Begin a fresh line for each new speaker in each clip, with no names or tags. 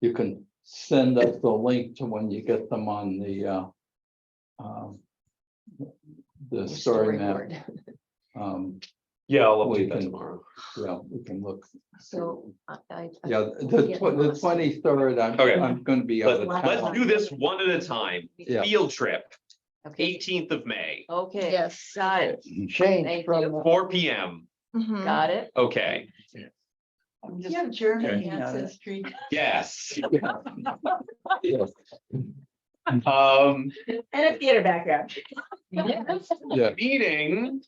you can send us the link to when you get them on the, uh, um, the story map.
Storyboard.
Um,
Yeah, I'll
We
update that
can-
tomorrow.
yeah, we can look.
So I, I. I
Yeah,
keep
the
getting
tw- the
lost.
twenty-third, I'm,
Okay.
I'm gonna be out
But
of
Lots
let's
town.
of-
do this one at a time.
Yeah.
Field trip,
Okay,
eighteenth of May,
Okay.
Yes.
Got it,
Change
Thank
from.
four P M.
Mhm.
got it.
Okay,
I'm just German
Okay.
ancestry.
yes.
Yes,
Um,
And a theater background.
Yes.
Yeah,
meeting,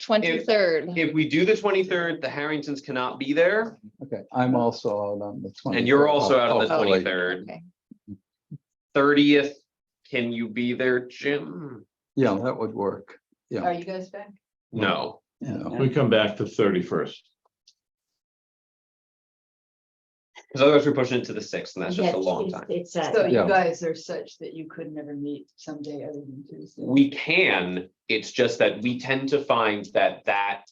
Twenty-third,
if we do the twenty-third, the Harringtons cannot be there
okay, I'm also out on the twenty.
and you're also out on the
Oh,
twenty-third.
okay,
Thirtieth, can you be there, Jim?
Yeah, that would work,
Are you guys back?
No,
you know.
We come back to thirty first.
because otherwise we're pushing it to the sixth and that's just a long time.
It's,
So
uh,
Yeah.
you guys are such that you could never meet someday other than Tuesday.
We can, it's just that we tend to find that that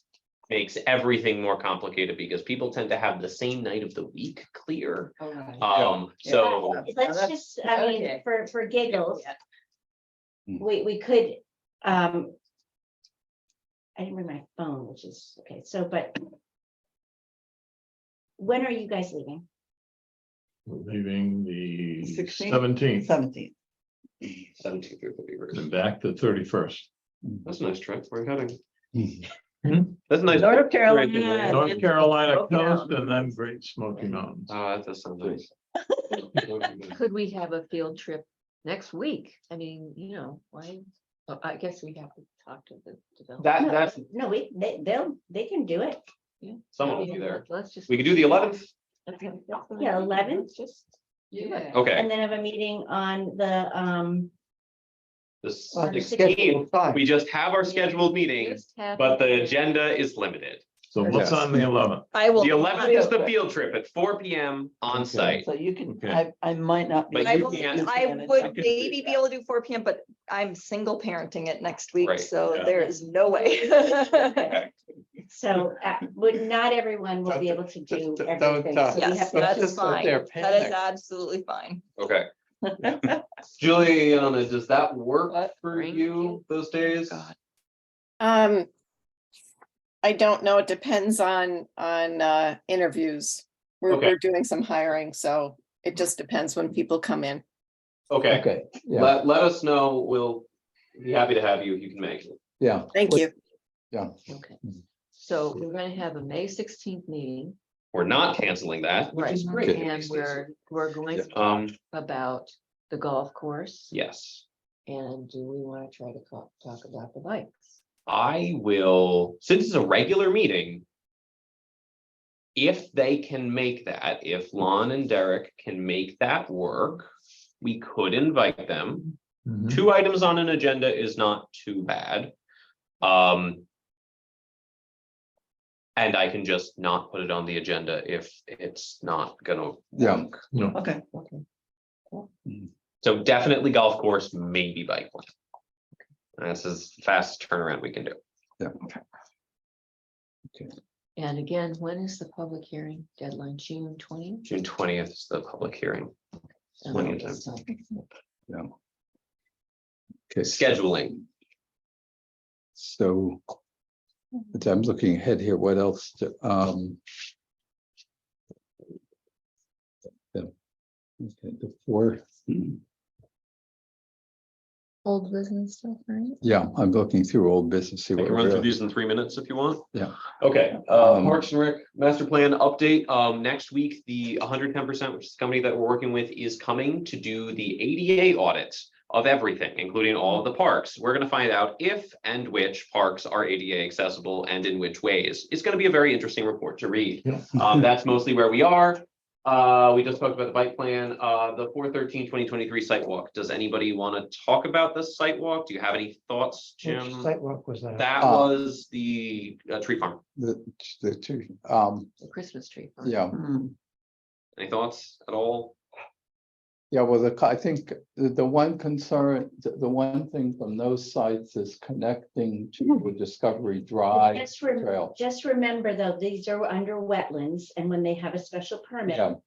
makes everything more complicated because people tend to have the same night of the week clear.
All right.
Um, so
let's just, I mean,
Okay.
for, for giggles.
Yeah.
We, we could, um. I didn't bring my phone, which is, okay, so, but. When are you guys leaving?
Leaving the
16th?
seventeenth
Seventeenth.
seventeenth through thirty
and back to thirty first.
That's a nice trip. We're heading.
Hmm?
That's a nice.
North
Great, good
Carolina.
night.
then
North Carolina
Smoky
coast
Mountains.
and then Great Smoky Mountains.
Ah, that does sound nice.
could we have a field trip next week? I mean, you know, why, well, I guess we have to talk to the developer.
That,
No,
that's,
No, we, they, they'll, they can do it.
someone will be there.
Let's just.
We could do the eleventh.
Okay, that's what I
Yeah,
think.
11th.
Let's Just.
Yeah.
Okay.
And then have a meeting on the, um,
The
On the
sixteenth, we just have our scheduled meetings,
just have
but the
it.
agenda is limited.
So what's
Yes.
on the eleventh?
I will.
The eleventh is the field trip at four P M on site.
So you can,
Okay.
I, I might not. be
But
I
you
will-
able to
can't-
do
I
that.
would maybe be able to do four P M, but I'm single parenting it next week,
Right,
so
yeah.
there is no way.
so, uh, would, not everyone will be able to do
Don't- don't-
everything. so we
Yes,
have
that
to-
is fine. That is absolutely fine.
Okay. Juliana, does that work
What?
for
Thank
you
you. Oh
those days?
God.
Um, I don't know. It depends on, on, uh, interviews. We're,
Okay.
we're doing some hiring, so it just depends when people come in.
Okay,
Okay, yeah,
let, let us know. We'll be happy to have you. if You can make it.
yeah.
Thank you.
Yeah,
Okay.
Mm.
So we're gonna have a May sixteenth meeting,
We're not canceling that, which
right,
is great.
and we're, we're going
Yeah.
to talk
Um,
about the golf course.
yes.
And do we wanna try to talk, talk about the bikes?
I will, since it's a regular meeting. If they can make that, if Lon and Derek can make that work, we could invite them.
Mhm.
Mm-hmm. Two items on an agenda is not too bad. Um. And I can just not put it on the agenda if it's not gonna
Yeah.
work.
No,
Okay.
Okay.
So definitely golf course, maybe bike lane. That's as fast turnaround we can do.
And again, when is the public hearing deadline? June twentieth?
June twentieth is the public hearing. Plenty of time.
Yeah. Okay. so-
Scheduling.
So. but I'm looking ahead here, what else to, um. The okay, the fourth,
Old business stuff, right?
yeah, I'm looking through old business, see
I
what.
can run
we're
through
up-
these in three minutes if you want.
Yeah.
Okay, uh,
Um,
Parks and Rec master plan update, um, next week, the hundred ten percent, which is the company that we're working with, is coming to do the ADA audit of everything, including all of the parks. We're gonna find out if and which parks are ADA accessible and in which ways. It's gonna be a very interesting report to read.
Yeah.
Um, that's mostly where we are. Uh, we just talked about the bike plan, uh, the 413-2023 site walk. Does anybody want to talk about the site walk? Do you have any thoughts, Jim?
Sidewalk was that?
That
Uh,
was the uh, tree farm.
The, the two, um,
The Christmas tree. farm.
yeah,
Hmm.
Any thoughts at all?
yeah, well, the, co- I think the, the one concern, the, the one thing from those sites is connecting to Discovery Drive
Just rem-
Trail.
just remember though, these are under wetlands and when they have a special permit,
Yeah.